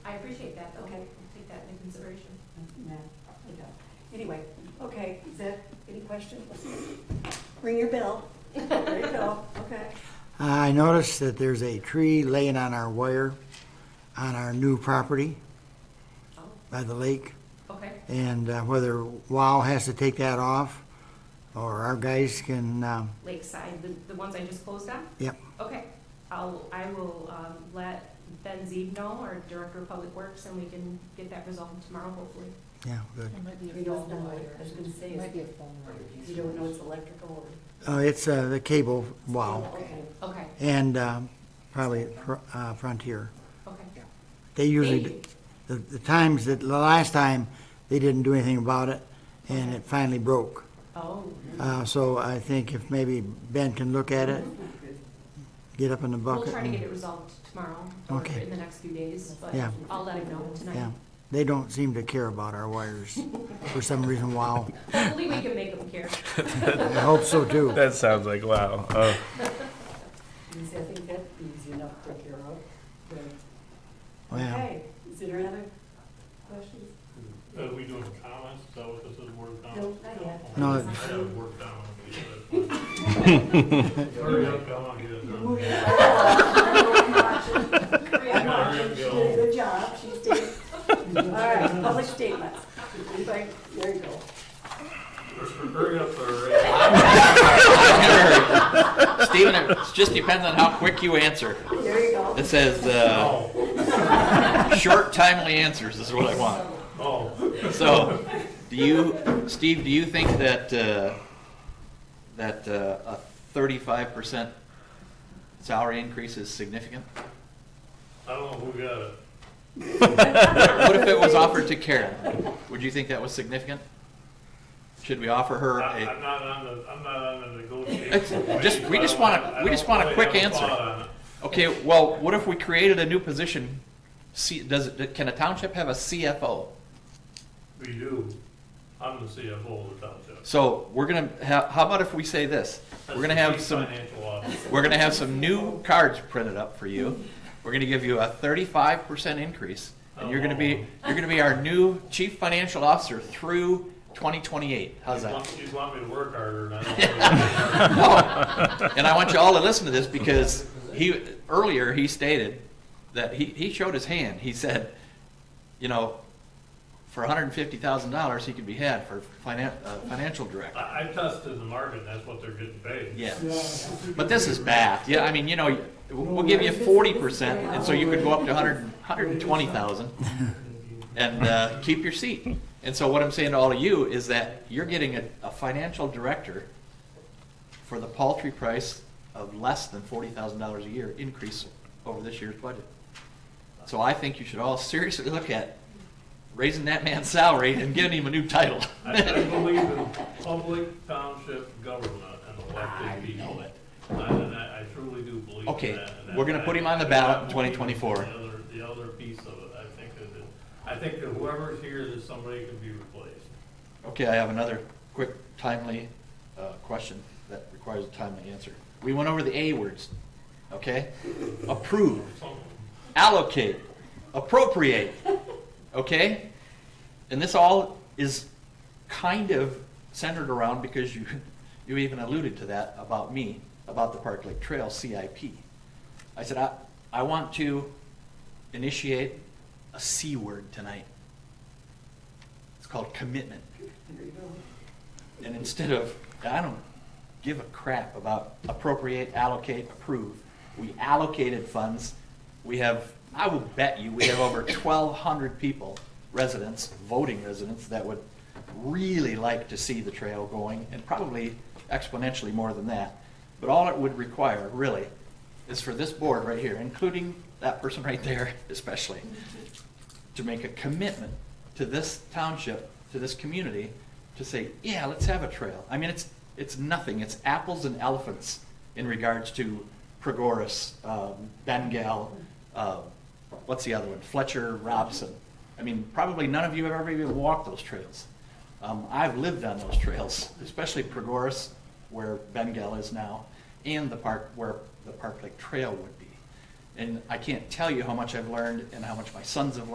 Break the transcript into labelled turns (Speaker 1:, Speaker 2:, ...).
Speaker 1: appreciate that, though.
Speaker 2: Okay.
Speaker 1: I'll Take that into consideration.
Speaker 2: No, we don't. Anyway, okay, is that, any questions? Ring your bell. There you go, okay.
Speaker 3: I noticed that there's a tree laying on our wire on our new property
Speaker 1: Oh,
Speaker 3: by the lake,
Speaker 1: okay.
Speaker 3: and uh, whether WOW has to take that off, or our guys can, um,
Speaker 1: Lakeside, the, the ones I just closed on?
Speaker 3: yep,
Speaker 1: Okay, I'll, I will, um, let Ben Zeeb know, our Director of Public Works, and we can get that resolved tomorrow, hopefully.
Speaker 3: yeah, good.
Speaker 4: It might be
Speaker 2: We
Speaker 4: a
Speaker 2: don't
Speaker 4: phone
Speaker 2: know,
Speaker 4: wire.
Speaker 2: I was gonna say,
Speaker 4: It might
Speaker 2: is-
Speaker 4: be a phone wire.
Speaker 2: you don't know it's electrical
Speaker 3: Oh, it's uh, the cable
Speaker 2: or.
Speaker 3: WOW,
Speaker 2: Okay.
Speaker 1: Okay,
Speaker 3: and um, probably Fr- uh, Frontier.
Speaker 1: okay.
Speaker 3: They
Speaker 1: Thank
Speaker 3: usually,
Speaker 1: you.
Speaker 3: the the times, that the last time, they didn't do anything about it, and it finally broke.
Speaker 1: Oh,
Speaker 3: Uh, So I think if maybe Ben can look at it, get up in the
Speaker 1: we'll
Speaker 3: bucket.
Speaker 1: try to
Speaker 3: and-
Speaker 1: get it resolved tomorrow, or
Speaker 3: Okay.
Speaker 1: in the next few days, but
Speaker 3: Yeah.
Speaker 1: I'll let him know
Speaker 3: Yeah,
Speaker 1: tonight.
Speaker 3: they don't seem to care about our wires for some reason. Wow,
Speaker 1: Hopefully, we can make him care.
Speaker 3: I hope so too.
Speaker 5: That sounds like wow. Oh,
Speaker 2: You see, I think that's easy enough to care of. but-
Speaker 3: Yeah.
Speaker 2: Okay, is there any other questions?
Speaker 6: Are we doing comments? Is that what this is, word of
Speaker 2: No,
Speaker 6: comments?
Speaker 2: not yet.
Speaker 3: No,
Speaker 6: I
Speaker 3: it's-
Speaker 6: have word comments. Hurry up, come on, get it done.
Speaker 2: Moving on. I'm watching. I'm watching. She did a good job, she stayed. All right, public statements. Anybody, there you go.
Speaker 6: Hurry up, or.
Speaker 7: Stephen, it just depends on how quick you answer.
Speaker 2: There you go.
Speaker 7: It says, uh,
Speaker 6: Oh,
Speaker 7: short, timely answers is what I want.
Speaker 6: oh,
Speaker 7: So, do you, Steve, do you think that, uh, that uh, a thirty-five percent salary increase is significant?
Speaker 6: I don't know who got it.
Speaker 7: What if it was offered to Karen? Would you think that was significant? Should we offer her
Speaker 6: I-
Speaker 7: a,
Speaker 6: I'm not on the, I'm not on the negotiation.
Speaker 7: It's- just- we just want a- we just want a quick answer. okay, well, what if we created a new position? See, does it, can a township have a CFO?
Speaker 6: We do. I'm the CFO of the township.
Speaker 7: So we're gonna have, how about if we say this? We're gonna have
Speaker 6: Chief
Speaker 7: some,
Speaker 6: Financial officer.
Speaker 7: we're gonna have some new cards printed up for you. We're gonna give you a thirty-five percent increase, and you're gonna be, you're gonna be our new chief financial officer through twenty twenty-eight. How's
Speaker 6: You
Speaker 7: that?
Speaker 6: want- You want me to work harder than I do.
Speaker 7: No. Oh, And I want you all to listen to this because he, earlier he stated that he, he showed his hand. He said, you know, for hundred and fifty thousand dollars, he could be had for finan, uh, financial director.
Speaker 6: I, I tested the market, and that's what they're getting paid.
Speaker 7: Yeah. But this is bad. Yeah, I mean, you know, we'll give you forty percent, and so you could go up to hundred, hundred and twenty thousand and, uh, keep your seat. And so what I'm saying to all of you is that you're getting a, a financial director for the paltry price of less than forty thousand dollars a year increase over this year's budget. So I think you should all seriously look at raising that man's salary and giving him a new title.
Speaker 6: I I believe in public township government and elected people.
Speaker 7: know it.
Speaker 6: And and I I truly do believe in that.
Speaker 7: Okay,
Speaker 6: and
Speaker 7: we're gonna
Speaker 6: I-
Speaker 7: put him on the
Speaker 6: I-
Speaker 7: ballot
Speaker 6: I
Speaker 7: in
Speaker 6: believe
Speaker 7: 2024.
Speaker 6: The other, the other piece of it, I think is that, I think that whoever's here, that somebody can be replaced.
Speaker 7: Okay, I have another quick timely uh, question that requires a timely answer. We went over the A words, okay? Approve,
Speaker 6: Some-
Speaker 7: allocate, appropriate, okay? And this all is kind of centered around, because you, you even alluded to that about me, about the Park Lake Trail CIP. I said, I, I want to initiate a C word tonight. It's called commitment.
Speaker 2: There you go.
Speaker 7: And instead of, I don't give a crap about appropriate, allocate, approve, we allocated funds. We have, I will bet you, we have over twelve hundred people, residents, voting residents, that would really like to see the trail going, and probably exponentially more than that. But all it would require, really, is for this board right here, including that person right there especially, to make a commitment to this township, to this community, to say, yeah, let's have a trail. I mean, it's, it's nothing, it's apples and elephants in regards to Pregoris, um, Bengal, uh, what's the other one, Fletcher, Robson. I mean, probably none of you have ever even walked those trails. Um, I've lived on those trails, especially Pregoris, where Bengal is now, and the park, where the Park Lake Trail would be. And I can't tell you how much I've learned and how much my sons have learned.